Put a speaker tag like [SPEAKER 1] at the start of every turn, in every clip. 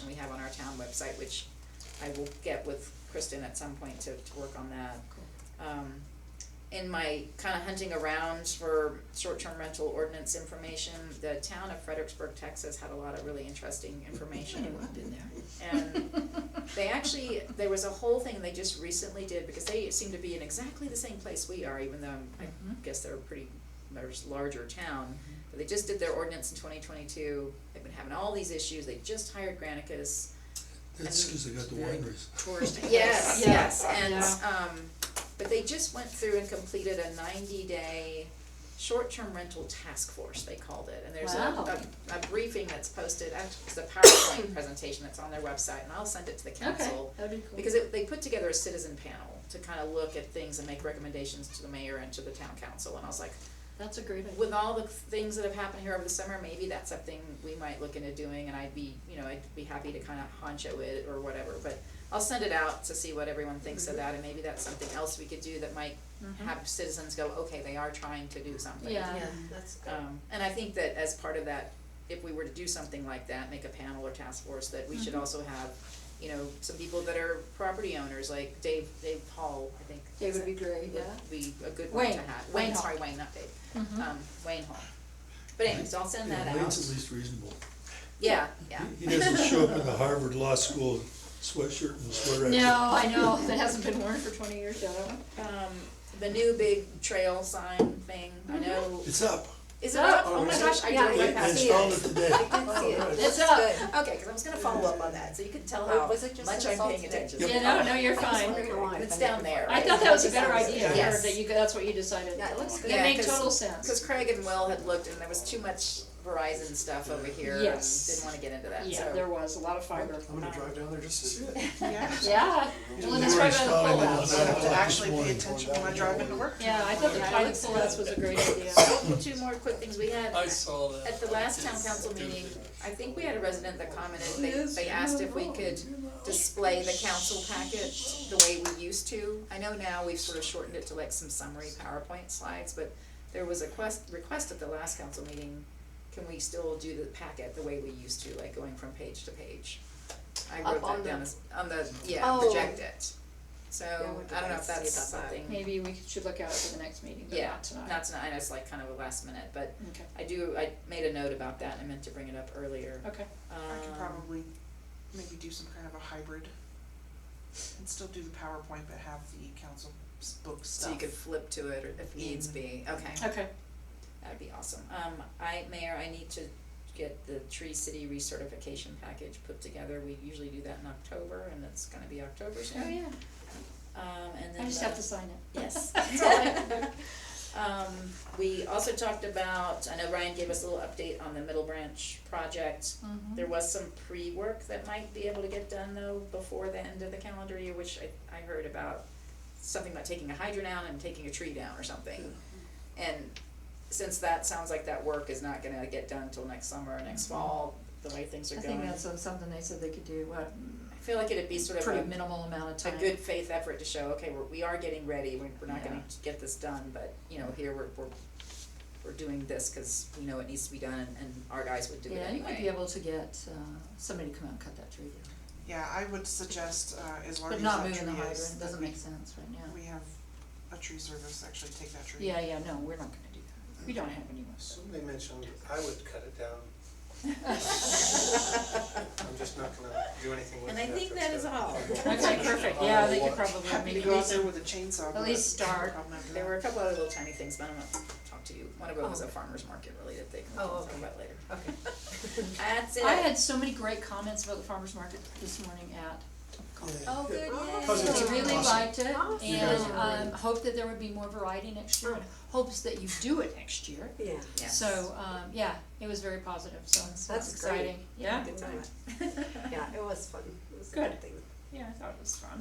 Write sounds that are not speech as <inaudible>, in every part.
[SPEAKER 1] information we have on our town website, which I will get with Kristen at some point to, to work on that. Um, in my kinda hunting around for short-term rental ordinance information, the town of Fredericksburg, Texas had a lot of really
[SPEAKER 2] <laughs>
[SPEAKER 1] interesting information.
[SPEAKER 2] I've been there.
[SPEAKER 1] And they actually, there was a whole thing they just recently did, because they seem to be in exactly the same place we are, even though I
[SPEAKER 2] Mhm.
[SPEAKER 1] guess they're a pretty, they're just larger town. But they just did their ordinance in twenty twenty-two, they've been having all these issues, they just hired Granicus.
[SPEAKER 3] That's because they got the
[SPEAKER 2] Very
[SPEAKER 3] wineries. <laughs>
[SPEAKER 2] Tourist place.
[SPEAKER 1] Yes,
[SPEAKER 2] Yeah.
[SPEAKER 1] yes, and,
[SPEAKER 2] Yeah.
[SPEAKER 1] um, but they just went through and completed a ninety-day short-term rental task force, they called it, and there's a,
[SPEAKER 2] Wow.
[SPEAKER 1] a, a briefing that's posted, actually, it's a PowerPoint presentation that's on their website, and I'll send it to the council.
[SPEAKER 2] that'd be cool.
[SPEAKER 1] Because it, they put together a citizen panel to kind of look at things and make recommendations to the mayor and to the town council, and I was like,
[SPEAKER 2] That's a great idea.
[SPEAKER 1] with all the things that have happened here over the summer, maybe that's something we might look into doing, and I'd be, you know, I'd be happy to kind of honcho it or whatever, but I'll send it out to see what everyone thinks
[SPEAKER 2] Mm-hmm.
[SPEAKER 1] of that, and maybe that's something else we could do that might have citizens go, okay, they are trying to do something.
[SPEAKER 2] Yeah.
[SPEAKER 4] Yeah, that's good.
[SPEAKER 1] Um, and I think that as part of that, if we were to do something like that, make a panel or task force, that we should
[SPEAKER 2] Mhm.
[SPEAKER 1] also have, you know, some people that are property owners, like Dave, Dave Hall, I think.
[SPEAKER 2] They
[SPEAKER 1] is
[SPEAKER 2] would
[SPEAKER 1] it-
[SPEAKER 2] be great, yeah.
[SPEAKER 1] Would be a good one to
[SPEAKER 2] Wayne,
[SPEAKER 1] have.
[SPEAKER 2] Wayne
[SPEAKER 1] Wayne,
[SPEAKER 2] Hall.
[SPEAKER 1] sorry, Wayne, not Dave,
[SPEAKER 2] Mhm.
[SPEAKER 1] um, Wayne Hall. But anyways, I'll send that
[SPEAKER 3] Yeah, Lane's at
[SPEAKER 1] out.
[SPEAKER 3] least reasonable.
[SPEAKER 1] Yeah, yeah.
[SPEAKER 3] He doesn't show up in the Harvard Law School sweatshirt and sweater.
[SPEAKER 2] No, I know, that hasn't been worn for twenty years, though.
[SPEAKER 1] Um, the new big trail sign thing, I know,
[SPEAKER 3] It's up.
[SPEAKER 1] is it up? Oh my
[SPEAKER 3] Already?
[SPEAKER 1] gosh, I
[SPEAKER 4] Yeah.
[SPEAKER 1] drove
[SPEAKER 3] They
[SPEAKER 1] right
[SPEAKER 3] they
[SPEAKER 1] past it.
[SPEAKER 3] installed it
[SPEAKER 4] did
[SPEAKER 3] today.
[SPEAKER 4] see it.
[SPEAKER 2] It's
[SPEAKER 1] Good.
[SPEAKER 2] up.
[SPEAKER 1] Okay, cause I was gonna follow up on that, so you can tell
[SPEAKER 4] Or
[SPEAKER 1] how
[SPEAKER 4] was it just
[SPEAKER 1] much
[SPEAKER 4] an
[SPEAKER 1] I'm
[SPEAKER 4] assault
[SPEAKER 1] paying
[SPEAKER 4] today?
[SPEAKER 1] attention.
[SPEAKER 2] Yeah, no, no, you're fine.
[SPEAKER 1] It's down there,
[SPEAKER 2] I
[SPEAKER 1] right?
[SPEAKER 2] thought that was a better
[SPEAKER 1] Yes.
[SPEAKER 2] idea, or
[SPEAKER 1] Yes.
[SPEAKER 2] that you, that's what you decided.
[SPEAKER 4] Yeah, it looks good.
[SPEAKER 2] That
[SPEAKER 1] Yeah,
[SPEAKER 2] made
[SPEAKER 1] 'cause-
[SPEAKER 2] total sense.
[SPEAKER 1] Cause Craig and Will had looked and there was too much Verizon stuff over here and
[SPEAKER 2] Yes.
[SPEAKER 1] didn't wanna get into that, so. <laughs>
[SPEAKER 2] Yeah, there was a lot of fiber.
[SPEAKER 5] I'm gonna drive down there just to see it.
[SPEAKER 2] Yeah, well, that's
[SPEAKER 3] They were
[SPEAKER 2] right by the
[SPEAKER 3] installing it
[SPEAKER 2] pullouts.
[SPEAKER 3] at nine o'clock
[SPEAKER 6] Oh, to
[SPEAKER 3] this
[SPEAKER 6] actually pay
[SPEAKER 3] morning.
[SPEAKER 6] attention when I drive into work.
[SPEAKER 2] Yeah, I thought the
[SPEAKER 1] Yeah, it
[SPEAKER 2] pilot
[SPEAKER 1] looks
[SPEAKER 2] pullouts was a great idea.
[SPEAKER 1] Two more quick things we had.
[SPEAKER 7] I saw that.
[SPEAKER 1] At the last town council meeting, I think we had a resident that commented, they, they asked if we could display the council packet the way we used to. I know now we've sort of shortened it to like some summary PowerPoint slides, but there was a quest, request at the last council meeting, can we still do the packet the way we used to, like going from page to page? I
[SPEAKER 4] Up
[SPEAKER 1] wrote
[SPEAKER 4] on
[SPEAKER 1] that down
[SPEAKER 4] the-
[SPEAKER 1] as, on the, yeah,
[SPEAKER 4] Oh.
[SPEAKER 1] project it. So,
[SPEAKER 4] Yeah, we
[SPEAKER 1] I don't know
[SPEAKER 4] could
[SPEAKER 1] if
[SPEAKER 4] see
[SPEAKER 1] that's
[SPEAKER 4] about that.
[SPEAKER 1] something, yeah,
[SPEAKER 2] Maybe we should look out for the next meeting, but
[SPEAKER 1] Yeah,
[SPEAKER 2] not tonight.
[SPEAKER 1] not tonight, it's like kind of a last minute, but
[SPEAKER 2] Okay,
[SPEAKER 1] I do, I made a note about that, and I meant to bring it up earlier.
[SPEAKER 2] okay.
[SPEAKER 6] I could
[SPEAKER 1] Um,
[SPEAKER 6] probably maybe do some kind of a hybrid and still do the PowerPoint, but have the council s- book stuff.
[SPEAKER 1] So you could flip to it or if needs be, okay,
[SPEAKER 2] Okay,
[SPEAKER 1] that'd be awesome. Um, I, Mayor, I need to get the Tree City recertification package put together, we usually do that in October, and it's gonna be October soon.
[SPEAKER 2] oh yeah,
[SPEAKER 1] Um, and then
[SPEAKER 2] I just
[SPEAKER 1] the-
[SPEAKER 2] have to sign it.
[SPEAKER 1] Yes, that's all right.
[SPEAKER 2] <laughs>
[SPEAKER 1] Um, we also talked about, I know Ryan gave us a little update on the Middle Branch project.
[SPEAKER 2] Mhm.
[SPEAKER 1] There was some pre-work that might be able to get done though before the end of the calendar year, which I, I heard about something about taking a hydrant down and taking a tree down or something. And since that sounds like that work is not gonna get done till next summer or next fall, the way things are
[SPEAKER 4] Mm-hmm. I
[SPEAKER 1] going.
[SPEAKER 4] think that's some- something they said they could do, what,
[SPEAKER 1] I feel like it'd be sort of a
[SPEAKER 4] pretty minimal amount of
[SPEAKER 1] a
[SPEAKER 4] time.
[SPEAKER 1] good faith effort to show, okay, we're, we are getting ready, we're, we're not gonna
[SPEAKER 4] Yeah.
[SPEAKER 1] get this done, but, you know, here we're, we're, we're doing this, cause we know it needs to be done, and, and our guys would do it
[SPEAKER 4] Yeah, you might be
[SPEAKER 1] anyway.
[SPEAKER 4] able to get, uh, somebody to come out and cut that tree down,
[SPEAKER 6] Yeah, I would suggest, uh, as large
[SPEAKER 4] but
[SPEAKER 6] as
[SPEAKER 4] not
[SPEAKER 6] that
[SPEAKER 4] moving the
[SPEAKER 6] tree
[SPEAKER 4] hydrant,
[SPEAKER 6] is, that
[SPEAKER 4] doesn't
[SPEAKER 6] we,
[SPEAKER 4] make sense right now.
[SPEAKER 6] we have a tree service actually take that tree.
[SPEAKER 4] Yeah, yeah, no, we're not gonna do that, we don't have anyone.
[SPEAKER 5] Somebody mentioned I would cut it down. I'm just not gonna do anything with it.
[SPEAKER 1] And I think
[SPEAKER 5] after
[SPEAKER 1] that
[SPEAKER 5] it's
[SPEAKER 1] is
[SPEAKER 5] done.
[SPEAKER 1] all. <laughs>
[SPEAKER 2] Okay, perfect, yeah, they could
[SPEAKER 5] What?
[SPEAKER 2] probably
[SPEAKER 6] Happy to
[SPEAKER 2] maybe
[SPEAKER 6] go
[SPEAKER 2] go
[SPEAKER 6] out there with a chainsaw, but
[SPEAKER 2] least
[SPEAKER 6] I have a
[SPEAKER 2] start.
[SPEAKER 6] problem after
[SPEAKER 1] There
[SPEAKER 6] that.
[SPEAKER 1] were a couple other little tiny things, but I'm gonna talk to you, one of them was a
[SPEAKER 4] Oh.
[SPEAKER 1] farmer's market related thing, we can
[SPEAKER 4] Oh,
[SPEAKER 1] talk
[SPEAKER 4] okay.
[SPEAKER 1] about later.
[SPEAKER 4] Okay.
[SPEAKER 1] <laughs> That's it.
[SPEAKER 2] I had so many great comments about the farmers market this morning at
[SPEAKER 3] Yeah.
[SPEAKER 1] Oh, good,
[SPEAKER 5] Cause it's
[SPEAKER 2] They really
[SPEAKER 5] awesome.
[SPEAKER 2] liked it
[SPEAKER 4] Awesome.
[SPEAKER 5] You guys
[SPEAKER 2] and
[SPEAKER 5] are
[SPEAKER 2] um hope that there would be more variety next year and
[SPEAKER 4] Oh.
[SPEAKER 2] hopes that you do it next year.
[SPEAKER 4] Yeah.
[SPEAKER 1] Yes.
[SPEAKER 2] So um yeah, it was very positive, so it's
[SPEAKER 4] That's
[SPEAKER 2] it's
[SPEAKER 4] great.
[SPEAKER 2] exciting, yeah,
[SPEAKER 1] Good time.
[SPEAKER 8] <laughs> Yeah, it was fun. It was a
[SPEAKER 2] Good.
[SPEAKER 8] good thing.
[SPEAKER 2] yeah, I thought it was fun.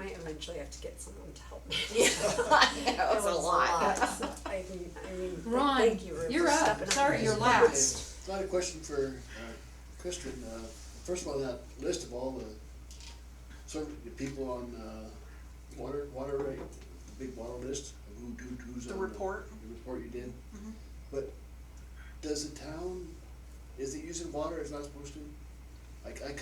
[SPEAKER 8] Might eventually have to get someone to help me.
[SPEAKER 1] Yeah, I know,
[SPEAKER 8] <laughs>
[SPEAKER 1] it's
[SPEAKER 8] It
[SPEAKER 1] a
[SPEAKER 8] was
[SPEAKER 1] lot.
[SPEAKER 8] so I mean, I mean, but
[SPEAKER 2] Ron,
[SPEAKER 8] thank you, Ruth,
[SPEAKER 2] You're
[SPEAKER 8] for
[SPEAKER 2] up,
[SPEAKER 8] stepping
[SPEAKER 2] sorry, you're last.
[SPEAKER 9] I had a question for uh, Kristen. Uh, First of all, that list of all the, some of the people on uh, water, water rate, the big water list, of who, who- who's
[SPEAKER 6] The
[SPEAKER 9] on.
[SPEAKER 6] report.
[SPEAKER 9] The report you did.
[SPEAKER 6] Mhm.
[SPEAKER 9] But does the town, is it using water it's not supposed to? Like, I